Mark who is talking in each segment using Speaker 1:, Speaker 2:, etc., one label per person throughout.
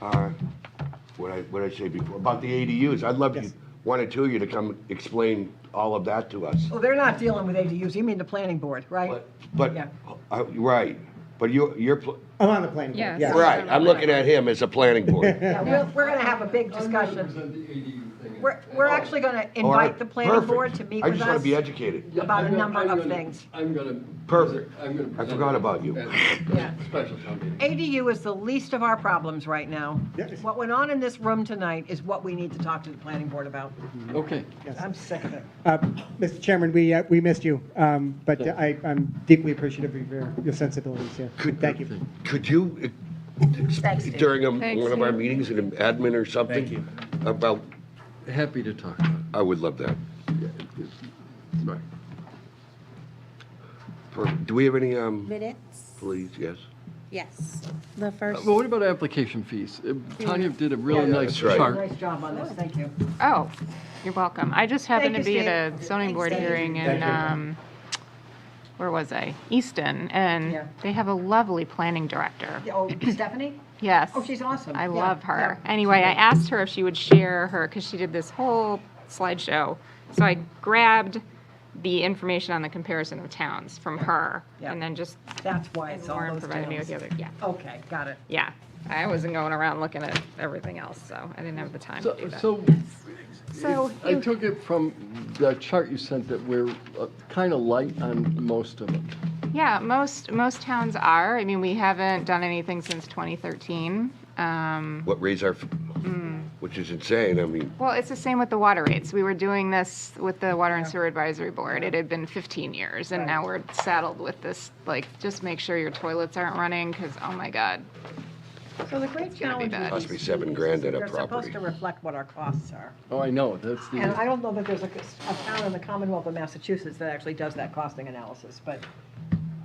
Speaker 1: are, Uh, what I, what I say before, about the ADUs. I'd love you,
Speaker 2: Yes.
Speaker 1: one or two of you to come explain all of that to us.
Speaker 2: Well, they're not dealing with ADUs, you mean the planning board, right?
Speaker 1: But,
Speaker 2: Oh, Yeah.
Speaker 1: uh, right, but you, you're, pl-
Speaker 3: I'm Oh, on the planning board,
Speaker 4: Yes.
Speaker 3: yeah.
Speaker 1: right, I'm looking at him as a planning board.
Speaker 2: Yeah, we're, we're gonna have a big discussion. We're, we're actually gonna invite the planning
Speaker 1: Oh. Perfect.
Speaker 2: board to meet
Speaker 1: I
Speaker 2: with us.
Speaker 1: just want to be educated.
Speaker 2: about a number of things.
Speaker 5: I'm gonna.
Speaker 1: Perfect.
Speaker 5: I'm gonna.
Speaker 1: I
Speaker 5: present
Speaker 1: forgot
Speaker 5: it
Speaker 1: about you.
Speaker 5: at
Speaker 2: Yeah.
Speaker 5: Special town meeting.
Speaker 2: ADU is the least of our problems right now.
Speaker 3: Yes.
Speaker 2: What went on in this room tonight is what we need to talk to the planning board about.
Speaker 5: Okay.
Speaker 2: I'm sick of it.
Speaker 3: Uh, Mr. Chairman, we, uh, we missed you, um, but I, I'm deeply appreciative of your, your sensibilities, yeah. Thank you.
Speaker 1: Could you, uh,
Speaker 2: Thanks, Dave.
Speaker 1: during a-
Speaker 4: Thanks,
Speaker 1: one of our
Speaker 4: Dave.
Speaker 1: meetings, an admin or something?
Speaker 6: Thank you.
Speaker 1: About,
Speaker 5: Happy to talk about it.
Speaker 1: I would love that. Right. Perfect. Do we have any, um,
Speaker 7: Minutes?
Speaker 1: please, yes?
Speaker 7: Yes. The first,
Speaker 5: Well, what about application fees? Uh, Tanya did a really
Speaker 2: Yeah.
Speaker 5: nice
Speaker 1: That's right.
Speaker 5: chart.
Speaker 2: Nice job on this, thank you.
Speaker 4: Oh, you're welcome. I just happened to
Speaker 2: Thank you,
Speaker 4: be at a zoning board
Speaker 2: Thank you.
Speaker 4: hearing in, um, where was I? Easton, and
Speaker 2: Yeah.
Speaker 4: they have a lovely planning director.
Speaker 2: Yeah, Oh, Stephanie?
Speaker 4: Yes.
Speaker 2: Oh, she's awesome.
Speaker 4: I
Speaker 2: Yeah,
Speaker 4: love her.
Speaker 2: yeah.
Speaker 4: Anyway, I asked her if she would share her, because she did this whole slideshow. So I grabbed the information on the comparison of towns from her,
Speaker 2: Yeah.
Speaker 4: and then just,
Speaker 2: That's why
Speaker 4: and
Speaker 2: it's all
Speaker 4: Lauren
Speaker 2: those
Speaker 4: provided me with
Speaker 2: towns.
Speaker 4: the other, yeah,
Speaker 2: Okay, got it.
Speaker 4: yeah. I wasn't going around looking at everything else, so I didn't have the time to
Speaker 5: So,
Speaker 4: do that.
Speaker 5: so
Speaker 4: So
Speaker 5: if- I
Speaker 4: you-
Speaker 5: took it from the chart you sent that we're kind of light on most of it.
Speaker 4: Yeah, most, most towns are. I mean, we haven't done anything since 2013. Um,
Speaker 1: What raise our, f-
Speaker 6: Mm.
Speaker 1: which is insane, I mean,
Speaker 4: Well, it's the same with the water rates. We were doing this with the Water and Sewer Advisory Board. It had been 15 years, and now we're saddled with this, like, just make sure your toilets aren't running, because, oh my God.
Speaker 2: So the great
Speaker 4: gonna be
Speaker 2: challenge.
Speaker 4: bad.
Speaker 2: with
Speaker 1: Must be
Speaker 2: these
Speaker 1: seven
Speaker 2: fees
Speaker 1: grand
Speaker 2: is
Speaker 1: at a
Speaker 2: They're supposed
Speaker 1: property.
Speaker 2: to reflect what our costs are.
Speaker 5: Oh, I know, that's
Speaker 2: And
Speaker 5: the,
Speaker 2: I don't know that there's a, a town in the Commonwealth of Massachusetts that actually does that costing analysis, but,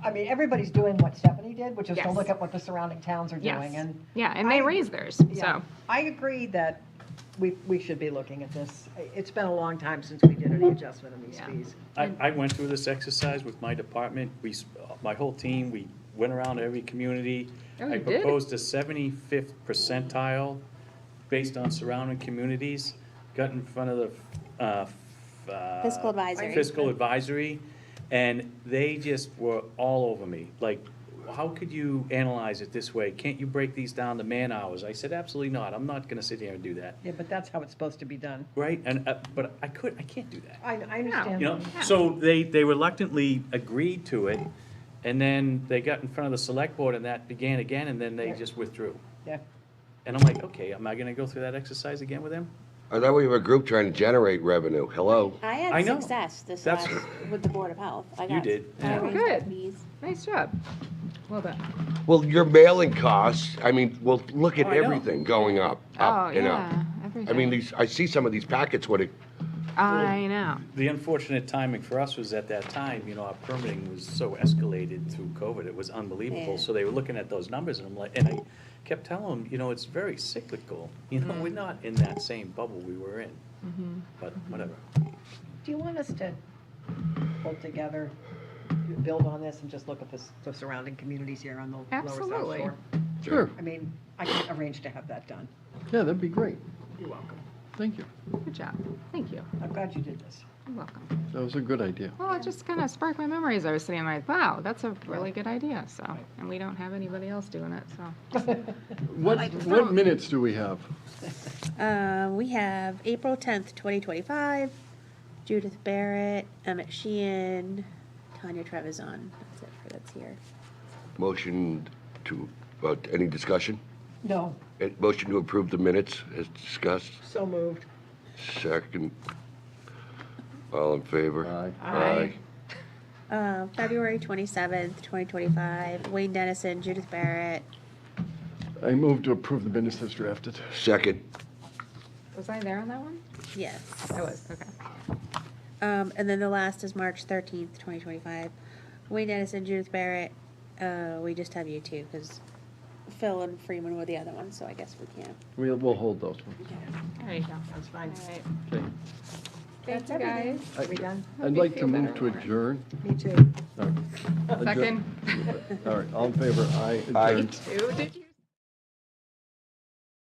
Speaker 2: I mean, everybody's doing what Stephanie did, which is to
Speaker 4: Yes.
Speaker 2: look at what the surrounding towns are doing,
Speaker 4: Yes.
Speaker 2: and,
Speaker 4: Yeah, and they
Speaker 2: I-
Speaker 4: raise theirs,
Speaker 2: yeah.
Speaker 4: so.
Speaker 2: I agree that we, we should be looking at this. It's been a long time since we did any adjustment on these
Speaker 4: Yeah.
Speaker 2: fees.
Speaker 6: I, I went through this exercise with my department, we, s- uh, my whole team, we went around to every community.
Speaker 4: Oh, you
Speaker 6: I
Speaker 4: did?
Speaker 6: proposed a seventy-fifth percentile based on surrounding communities, got in front of the, uh, f- uh,
Speaker 7: Fiscal advisory.
Speaker 6: Fiscal advisory, and they just were all over me, like, how could you analyze it this way? Can't you break these down to man-hours? I said, absolutely not, I'm not gonna sit here and do that,
Speaker 2: Yeah, but that's how it's supposed to be done.
Speaker 6: right? And, uh, but I could, I can't do that.
Speaker 2: I, I understand.
Speaker 6: You know, so they, they reluctantly agreed to it, and then they got in front of the select board and that began again, and then they just withdrew.
Speaker 2: Yeah.
Speaker 6: And I'm like, okay, am I gonna go through that exercise again with them?
Speaker 1: I thought we were a group trying to generate revenue, hello?
Speaker 7: I
Speaker 6: I
Speaker 7: had
Speaker 6: know.
Speaker 7: success this
Speaker 6: That's-
Speaker 7: last, with the Board of Health. I
Speaker 6: You
Speaker 7: got-
Speaker 6: did,
Speaker 7: I
Speaker 6: yeah.
Speaker 7: raised
Speaker 4: Good.
Speaker 7: fees.
Speaker 4: Nice job. Well done.
Speaker 1: Well, your mailing costs, I mean, well, look at
Speaker 6: Oh, I know.
Speaker 1: everything going up,
Speaker 4: Oh,
Speaker 1: up and up.
Speaker 4: yeah,
Speaker 1: I mean,
Speaker 4: everything.
Speaker 1: these, I see some of these packets, what it,
Speaker 4: I know.
Speaker 6: The unfortunate timing for us was at that time, you know, our permitting was so escalated through COVID, it was unbelievable.
Speaker 7: Yeah.
Speaker 6: So they were looking at those numbers and I'm like, and I kept telling them, you know, it's very cyclical. You know, we're not in that same bubble we were in. But whatever.
Speaker 2: Do you want us to pull together, build on this and just look at this, the surrounding communities here on the lower south shore?
Speaker 4: Absolutely.
Speaker 5: sure,
Speaker 2: I mean, I can arrange to have that done.
Speaker 5: yeah, that'd be great.
Speaker 2: You're welcome.
Speaker 5: Thank you.
Speaker 4: Good job. Thank you.
Speaker 2: I'm glad you did this.
Speaker 4: You're welcome.
Speaker 5: That was a good idea.
Speaker 4: Well, it just kind of sparked my memories. I was sitting there like, wow, that's a really good idea, so. And we don't have anybody else doing it, so.
Speaker 5: What, what
Speaker 4: don't-
Speaker 5: minutes do we have?
Speaker 7: Uh, we have April tenth, twenty twenty-five, Judith Barrett, Emmett Sheehan, Tanya Trevizon. That's it for that's here.
Speaker 1: motion to, uh, any discussion?
Speaker 2: No,
Speaker 1: Uh, Motion to approve the minutes as discussed,
Speaker 2: so moved.
Speaker 1: second. All in favor?
Speaker 5: Aye.
Speaker 1: Aye.
Speaker 7: Uh, February twenty-seventh, twenty twenty-five, Wayne Dennison, Judith Barrett.
Speaker 5: I move to approve the minutes as drafted.
Speaker 1: Second,
Speaker 4: Was I there on that one?
Speaker 7: Yes.
Speaker 4: I was, okay.
Speaker 7: Um, and then the last is March thirteenth, twenty twenty-five. Wayne Dennison, Judith Barrett, uh, we just have you two, because Phil and Freeman were the other ones, so I guess we can't.
Speaker 5: We'll, we'll hold those ones.
Speaker 4: There you go.
Speaker 2: That's fine.
Speaker 4: All right.
Speaker 5: Okay.
Speaker 4: Thank
Speaker 7: That's
Speaker 4: you,
Speaker 7: everything.
Speaker 4: guys.
Speaker 5: I-
Speaker 2: We done?
Speaker 4: Hope
Speaker 5: I'd
Speaker 4: you
Speaker 5: like to
Speaker 4: feel
Speaker 5: move to
Speaker 4: better.
Speaker 5: adjourn.
Speaker 2: Me too.
Speaker 5: All right. Adjourn-
Speaker 4: Second.
Speaker 5: All right, all in favor, aye.
Speaker 1: Aye.
Speaker 5: adjourned.
Speaker 4: Two, did you?